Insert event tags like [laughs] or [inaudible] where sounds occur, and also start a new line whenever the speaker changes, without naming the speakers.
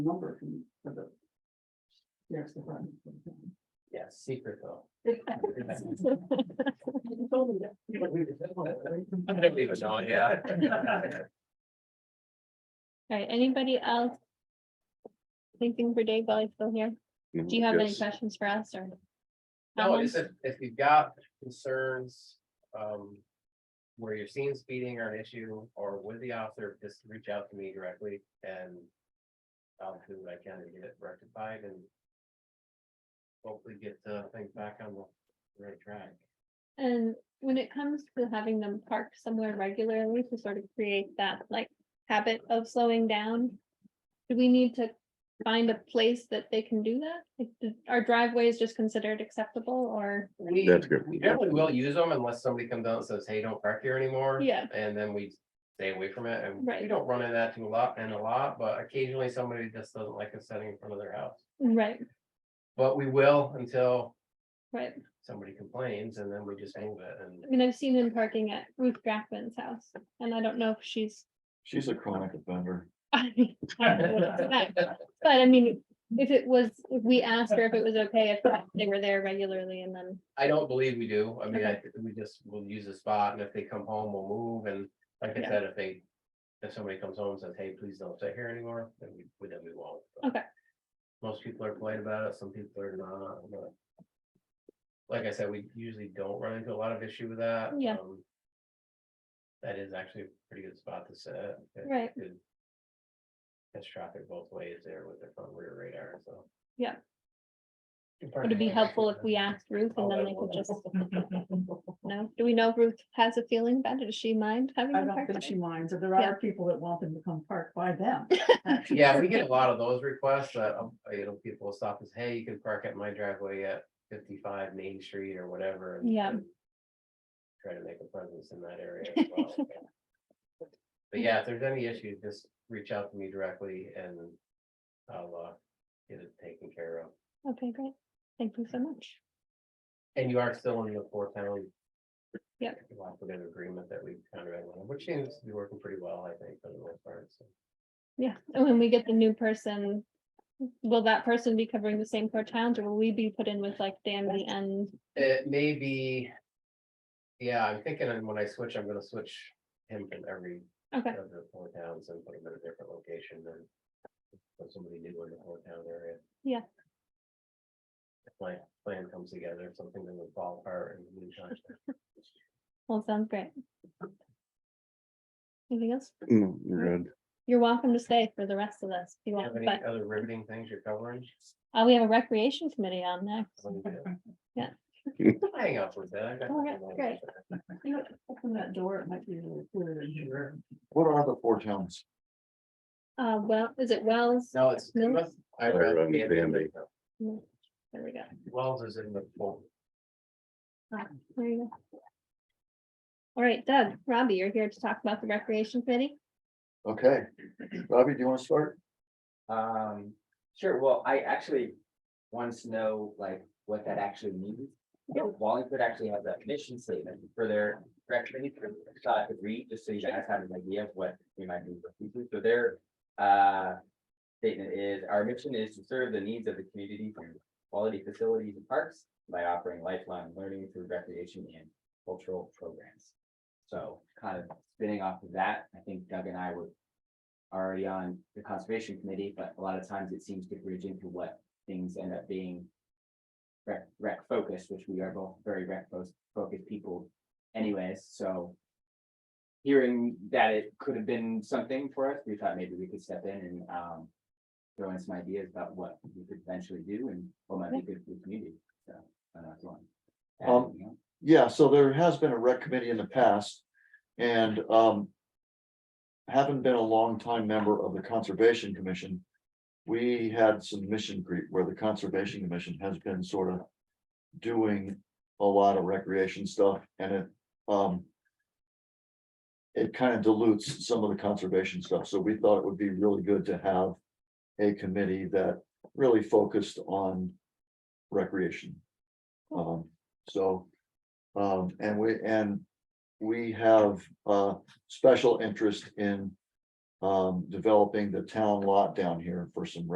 number from- for the. Yes, the front.
Yeah, secret though. [laughs]
You told me that.
I'm gonna leave it on, yeah.
All right, anybody else? Anything for Dave while he's still here? Do you have any
Yes.
questions for us or?
No, it's if, if you've got concerns, um. Where you're seeing speeding or an issue or with the officer, just reach out to me directly and. I'll do what I can to get it rectified and. Hopefully get uh things back on the right track.
And when it comes to having them park somewhere regularly to sort of create that like habit of slowing down. Do we need to find a place that they can do that? Like, do- Are driveways just considered acceptable or,
We,
That's good,
we
yeah.
definitely will use them unless somebody comes out and says, hey, don't park here anymore.
yeah,
And then we stay away from it, and we
Right.
don't run into that too a lot, and a lot, but occasionally somebody just doesn't like us sitting in front of their house.
right,
But we will until
right.
somebody complains, and then we just move it, and
I mean, I've seen him parking at Ruth Jackman's house and I don't know if she's.
She's a chronic offender.
[laughs] I don't know what it's like, But I mean, if it was, if we asked her if it was okay if they were there regularly and then,
I don't believe we do, I mean, I, we just will use the spot, and if they come home, we'll move, and like I
Yeah.
said, if they. If somebody comes home and says, hey, please don't stay here anymore, then we, we- then we won't. But
Okay.
Most people are polite about it, some people are not, but. Like I said, we usually don't run into a lot of issue with that.
Yeah.
um, That is actually a pretty good spot to sit. if you
Right.
could Catch traffic both ways there with their front rear radar, so.
Yeah.
Would
would it be helpful if we asked Ruth and then they could just, no? Do we know if Ruth has a feeling about it? Does she mind having?
I
them
don't
park
think
there?
she minds, and there are
Yeah.
people that want them to come park by them.
Yeah, we get a lot of those requests, uh, um, you know, people will stop and say, hey, you can park at my driveway at fifty-five Main Street or whatever. and-
Yeah.
and Try to make a presence in that area as well.
[laughs]
But yeah, if there's any issues, just reach out to me directly and I'll, uh, get it taken care of.
Okay, great. Thank you so much.
And you are still in the four town.
Yep.
Cooperative agreement that we kind of, which seems to be working pretty well, I think, for the most part, so.
Yeah, and when we get the new person, will that person be covering the same four towns or will we be put in with like Danby and,
It may be. Yeah, I'm thinking and when I switch, I'm gonna switch him from every
okay,
of the four towns and put him in a different location than. Put somebody new in the four town area.
Yeah.
If my plan comes together, if something doesn't fall apart in the
[laughs]
meantime.
well, sounds great. Anything else?
No, you're good.
You're welcome to stay for the rest of this. if you
Do you Have
want,
any
but
other riveting things you're covering?
uh, we have a recreation committee on next.
Let me do it.
[laughs] Yeah.
I'll Hang up with that. I got
All right,
nothing
great.
else.
You know, Open that door, it might be a little clearer in here.
What are the four towns?
Uh, well, is it Wells?
No, it's.
No?
I
Iron
read
Man Band-Aid.
Band-Aid.
There we go.
Wells is in the form.
There you go. All right, Doug, Robbie, you're here to talk about the recreation committee.
Okay, Robbie, do you want to start?
Um, sure, well, I actually wanted to know like what that actually means. Wallingford actually has a mission statement for their recreation, so I could read, just so you guys have an idea of what we might be looking to, so their uh. Statement is, our mission is to serve the needs of the community through quality facilities and parks by offering lifelong learning through recreation and cultural programs. So kind of spinning off of that, I think Doug and I were already on the conservation committee, but a lot of times it seems to bridge into what things end up being. Rec, rec focused, which we are both very rec fo- focused people anyways, so. Hearing that it could have been something for us, we thought maybe we could step in and, um. Throw in some ideas about what we could eventually do and what might be good for the community, so. I don't know if you want to add
Um,
anything else.
Yeah, so there has been a rec committee in the past and um. Haven't been a longtime member of the Conservation Commission. We had some mission creep where the Conservation Commission has been sort of. Doing a lot of recreation stuff and it um. It kind of dilutes some of the conservation stuff, so we thought it would be really good to have a committee that really focused on recreation. Um, so. Um, and we, and we have, uh, special interest in. Um, developing the town lot down here for some